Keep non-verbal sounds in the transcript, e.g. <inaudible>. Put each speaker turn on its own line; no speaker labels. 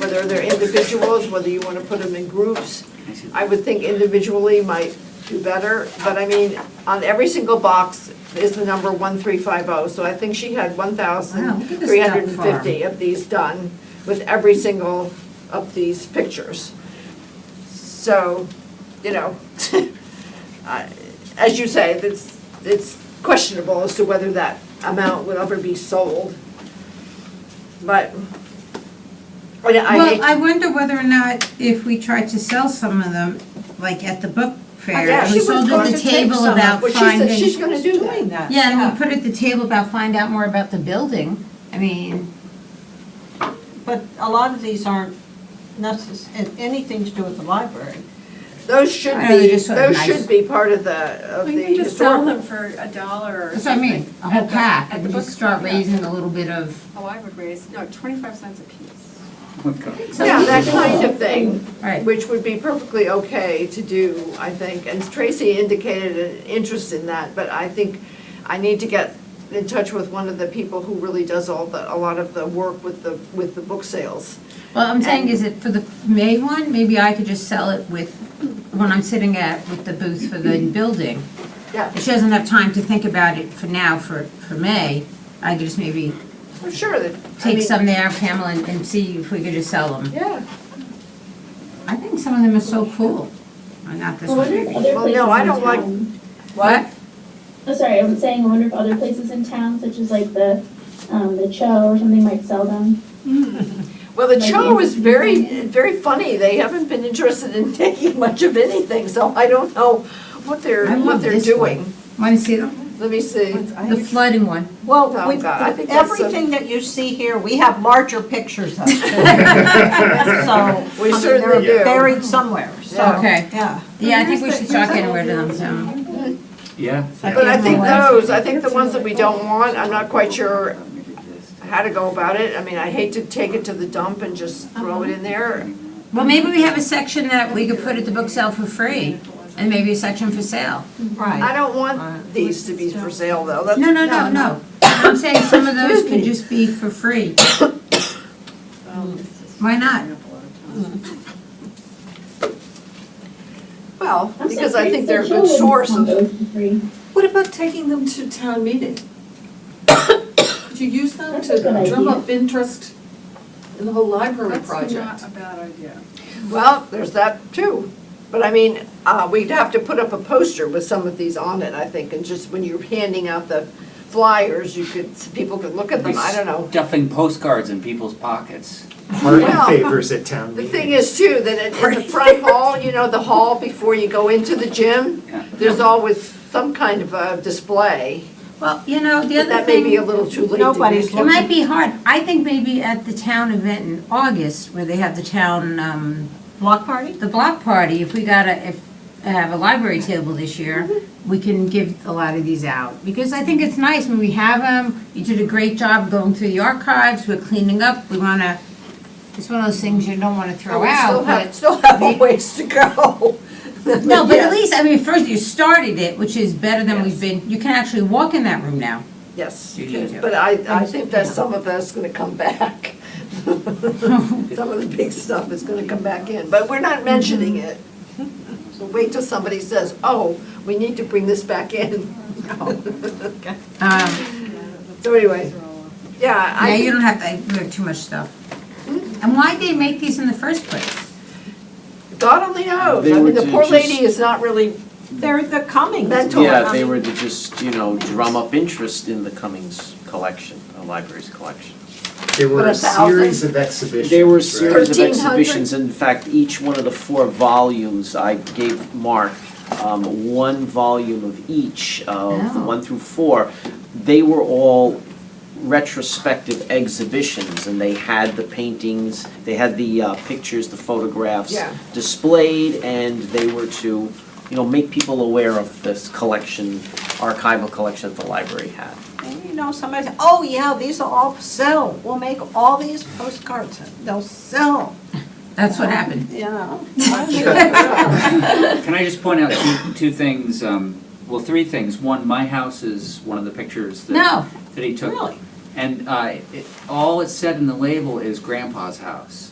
whether they're individuals, whether you want to put them in groups. I would think individually might do better, but I mean, on every single box is the number 1350. oh, So I think she had
Wow, look at this duck farm.
1,350 of these done with every single of these pictures. So, you know, <laughs> I- as you say, it's, it's questionable as to whether that amount would ever be sold. But, but I,
Well, I
mean,
wonder whether or not if we tried to sell some of them, like at the book fair.
yeah,
we
she was
sold
going
at
to
the
take
table
some of-
about
well, she said
finding.
she's gonna do that.
Yeah, and we put at the table about find out more about the building. I mean,
But a lot of these aren't necess, and anything to do with the library.
those should
I know, they're
be,
just sort of
those
nice.
should be part of the, of the
We can just sell
historical.
them for a dollar or
that's what I
something.
mean, a whole
At the-
pack,
at
and
the
we just
book-
start
yeah.
raising a little bit of.
Oh, I would raise, no, twenty-five cents a piece.
Yeah, that kind of thing,
Right.
which would be perfectly okay to do, I think. And Tracy indicated an interest in that, but I think I need to get in touch with one of the people who really does all the, a lot of the work with the, with the book sales.
Well, I'm saying is it for the May one, maybe I could just sell it with, when I'm sitting at, with the booth for the building.
Yeah,
She doesn't have time to think about it for now, for, for May. I could just maybe
I'm sure that, I
take
mean,
some there, Pamela, and, and see if we could just sell them.
yeah.
I think some of them are so cool. Oh, Not this
Well,
one.
it-
Other
Well, no,
places
I
in
don't like-
town-
What?
Oh, sorry, I'm saying, I wonder if other places in town, such as like the, um, the Cho or something might sell them.
Well, the
Maybe
show was
interested
very,
in it.
very funny. They haven't been interested in <laughs> taking much of anything, so I don't know what they're,
I
what
love
they're
this one.
doing.
Want to see them?
Let me see.
The flooding one.
Well,
Oh,
we,
God, I think that's a-
everything that you see here, we have larger
<laughs>
pictures of. So, I
We
mean,
certainly do.
they're buried somewhere, so,
Okay.
yeah.
Yeah, I think we should talk anywhere to them, so.
Yeah.
But I think
Yeah.
those, I think the ones that we don't want, I'm not quite sure how to go about it. I mean, I hate to take it to the dump and just throw it
Uh-huh.
in there.
Well, maybe we have a section that we could put at the book sale for free, and maybe a section for sale.
I
Right.
don't want these to be for sale, though. That's-
No, no, no, no. I'm saying some of those could just be for free. Why not?
Well,
I'm so
because I think
curious, the
they're a
Cho
good
wouldn't
source of,
want those for free.
What about taking them to town meeting? <coughs> Could you use them
That's a
to
good
drum
idea.
up interest in the whole library
That's not
project?
a bad idea.
well, there's that too. But I mean, uh, we'd have to put up a poster with some of these on it, I think, and just when you're handing out the flyers, you could, people could look at them. Um, I don't know.
Stuffing postcards in people's pockets.
Party
Well,
favors at town
Oh. The
meeting.
thing is too, that in- in the front hall, you know, the hall before you go into the gym,
Yeah.
there's always some kind of a display.
Well, you know, the
But
other
that may be a
thing,
little too late to do.
Nobody's
it
so.
might be hard. I think maybe at the town event in August, where they have the town, um,
Block party?
the block party, if we got a, if, have a library table this year,
Mm-hmm.
we can give a lot of these out. Because I think it's nice when we have them, you did a great job going through the archives, we're cleaning up, we wanna, it's one of those things you don't wanna
But
throw
we still
out,
have,
but.
still have a ways to go. <laughs>
No, but
Yeah.
at least, I mean, first you started it, which is better than we've been, you can actually walk in that room now.
Yes,
You do, yeah.
but I, I think that some of that's gonna come back. <laughs> Some of the big stuff is gonna come back in, but we're not mentioning it. So wait till somebody says, oh, we need to bring this back in.
Um,
So anyway, yeah,
yeah, you
I,
don't have to, you have too much stuff. And why'd they make these in the first place?
God only knows.
They
I
were
mean, the
to
poor
just-
lady is not really
They're the Cummings.
Mental.
Yeah, if they were to just, you know, drum up interest in the Cummings collection, the library's collection.
There
But
were
a
a
thousand-
series of exhibitions.
There were a
right?
series of
1300?
exhibitions, and in fact, each one of the four volumes, I gave Mark um, one volume of each, of the
Oh.
one through four. They were all retrospective exhibitions, and they had the paintings, they had the uh, pictures, the photographs
Yeah.
displayed, and they were to, you know, make people aware of this collection, archival collection that the library had.
And you know, somebody said, oh yeah, these will all sell. We'll make all these postcards. They'll sell,
That's what happened.
you know?
Can I just point out two, two things, um, well, three things. One, my house is one of the pictures that.
No.
That he took.
Really?
And, uh, it, all it said in the label is grandpa's house.